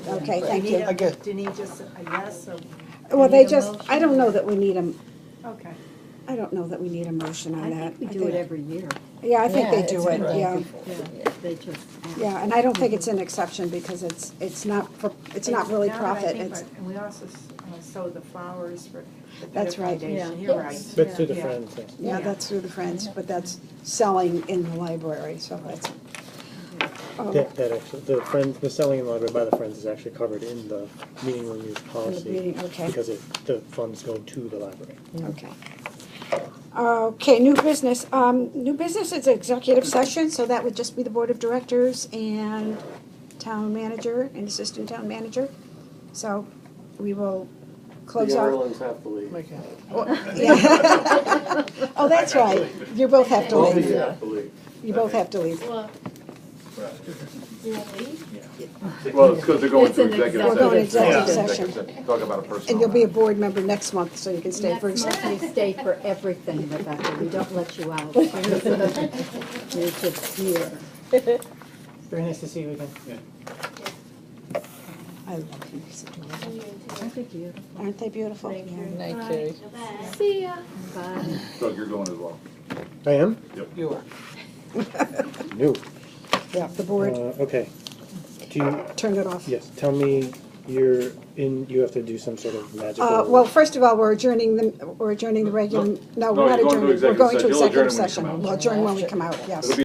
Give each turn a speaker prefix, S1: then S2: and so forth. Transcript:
S1: Okay,
S2: Do
S1: thank
S2: need
S1: you.
S2: a-
S3: I get-
S2: Do you need just a yes or?
S1: Well,
S2: do
S1: they
S2: you need a
S1: just, I don't
S2: motion?
S1: know that we need a,
S2: Okay.
S1: I don't know that we need a motion on
S4: I
S1: that.
S4: think we
S1: I
S4: do it
S1: think-
S4: every year.
S1: Yeah, I think
S3: Yeah,
S1: they
S3: it's
S1: do it,
S3: been done
S1: yeah.
S3: before.
S4: Yeah, they just. ask.
S1: Yeah, and I don't think it's an exception because it's, it's not, for- it's not really
S2: Now that I
S1: profit,
S2: think
S1: it's,
S2: about it, And we also s- uh, sow the flowers for the Better
S1: That's right.
S2: Foundation,
S4: Yeah.
S2: you're right.
S5: But to the
S2: Yeah.
S5: friend thing.
S1: yeah,
S2: Yeah.
S1: that's through the Friends, but that's selling in the library, so that's. oh,
S5: That, that actually, the friends, the selling in library by the friends is actually covered in the meeting room use policy.
S1: meeting, okay.
S5: Because it, the funds go to the library.
S1: Okay. Okay, new business, um, new business is executive session, so that would just be the board of directors and town manager and assistant town manager. So we will close off.
S6: have to leave.
S1: Yeah. Oh, that's right. You both have to
S6: Both of you
S1: leave.
S6: have to leave.
S1: You both have to leave.
S7: Well, you want me?
S8: Well, it's because they're going
S4: It's
S8: to
S4: an
S8: executive
S1: We're
S8: session.
S1: going to executive
S8: Yeah,
S1: session.
S8: session. Talk about a personal.
S1: And you'll be a
S8: matter.
S1: board member next month, so you can stay for.
S4: Next
S1: exec-
S4: month, you stay for everything, Rebecca, we don't let you out. You're just here.
S2: Very nice to see you again.
S1: I love you.
S4: Aren't they beautiful?
S1: Aren't they beautiful?
S7: Thank
S1: Yeah.
S7: you.
S3: Night,
S7: Bye.
S3: Carrie.
S7: Bye.
S4: See ya. Bye.
S8: Doug, you're going as well.
S5: I am?
S3: You are.
S5: No.
S1: Yeah, the
S5: Uh,
S1: board,
S5: okay. Do you,
S1: turn it off.
S5: yes, tell me, you're in, you have to do some sort of magical.
S1: Uh, well, first of all, we're adjourning the, we're adjourning the regular, no, we're
S8: No,
S1: not
S8: you're going to
S1: adjourning. We're
S8: executive
S1: going to
S8: session. You'll
S1: executive
S8: adjourn when we
S1: session. We'll adjourn when we come
S8: come out.
S1: out, yes.
S8: It'll be